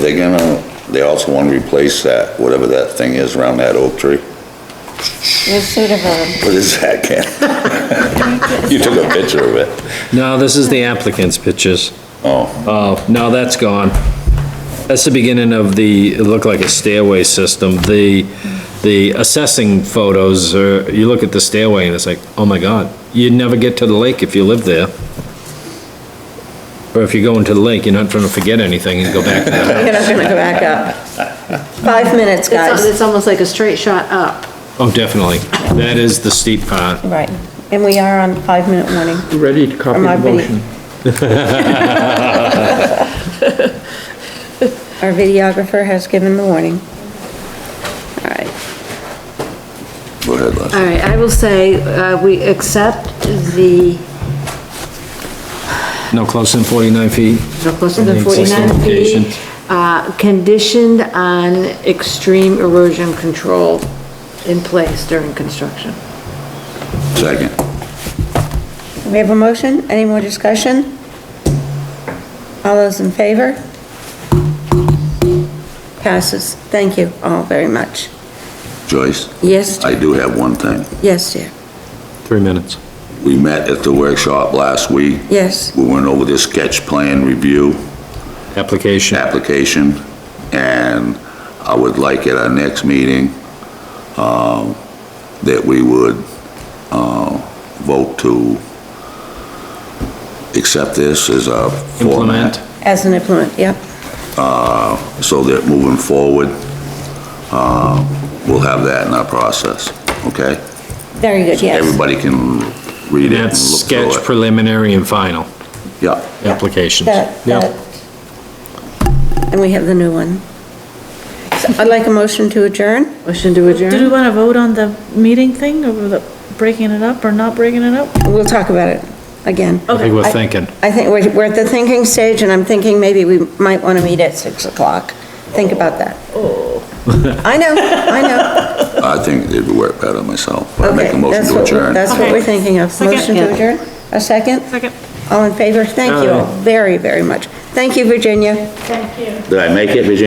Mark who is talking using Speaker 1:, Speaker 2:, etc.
Speaker 1: they gonna, they also wanna replace that, whatever that thing is around that oak tree?
Speaker 2: With Sudafed.
Speaker 1: What is that, Ken? You took a picture of it.
Speaker 3: No, this is the applicant's pictures.
Speaker 1: Oh,
Speaker 3: Oh, no, that's gone. That's the beginning of the, it looked like a stairway system. The, the assessing photos, are you look at the stairway and it's like, oh my God, you'd never get to the lake if you lived there. Or if you're going to the lake, you're not trying to forget anything and go back to that.
Speaker 4: You're not gonna go back up. Five minutes,
Speaker 5: It's,
Speaker 4: guys.
Speaker 5: it's almost like a straight shot up.
Speaker 3: Oh, definitely. That is the steep part.
Speaker 4: Right, and we are on five-minute warning.
Speaker 6: Ready to copy
Speaker 4: Am I
Speaker 6: the
Speaker 4: pretty-
Speaker 6: motion?
Speaker 4: Our videographer has given the warning. All right,
Speaker 1: go ahead, Leslie.
Speaker 5: All right, I will say, uh, we accept the,
Speaker 3: No closer than 49 feet.
Speaker 5: no closer than
Speaker 3: Existing
Speaker 5: 49
Speaker 3: location.
Speaker 5: feet, uh, conditioned on extreme erosion control in place during construction.
Speaker 1: Second.
Speaker 4: we have a motion, any more discussion? All those in favor? Passes, thank you all very much.
Speaker 1: Joyce,
Speaker 4: Yes,
Speaker 1: I do have one thing.
Speaker 4: yes, dear,
Speaker 3: Three minutes.
Speaker 1: We met at the workshop last week.
Speaker 4: yes,
Speaker 1: We went over this sketch plan review.
Speaker 3: Application.
Speaker 1: application, and I would like at our next meeting, um, that we would, uh, vote to accept this as a
Speaker 3: Implement.
Speaker 1: format,
Speaker 4: as an implement, yep,
Speaker 1: so that moving forward, uh, we'll have that in our process, okay?
Speaker 4: very good, yes.
Speaker 1: Everybody can read it
Speaker 3: That's
Speaker 1: and look through
Speaker 3: sketch
Speaker 1: it.
Speaker 3: preliminary and final
Speaker 1: Yeah,
Speaker 3: applications.
Speaker 4: That,
Speaker 3: Yep.
Speaker 4: that. And we have the new one. So I'd like a motion to adjourn?
Speaker 5: Motion to
Speaker 7: Do we
Speaker 5: adjourn?
Speaker 7: want to vote on the meeting thing, or the breaking it up or not breaking it up?
Speaker 4: We'll talk about it again.
Speaker 3: I think we're thinking.
Speaker 4: I think we're, we're at the thinking stage, and I'm thinking maybe we might want to meet at 6 o'clock. Think about that.
Speaker 1: Oh.
Speaker 4: I know, I know.
Speaker 1: I think it'd work better myself, but I make a
Speaker 4: Okay,
Speaker 1: motion
Speaker 4: that's
Speaker 1: to
Speaker 4: what-
Speaker 1: adjourn.
Speaker 4: That's what
Speaker 7: Okay.
Speaker 4: we're thinking of.
Speaker 7: Second.
Speaker 4: Motion to adjourn? A second?
Speaker 7: Second.
Speaker 4: All in favor? Thank you all very, very much. Thank you, Virginia.
Speaker 7: Thank you.
Speaker 1: Did I make it, Virginia?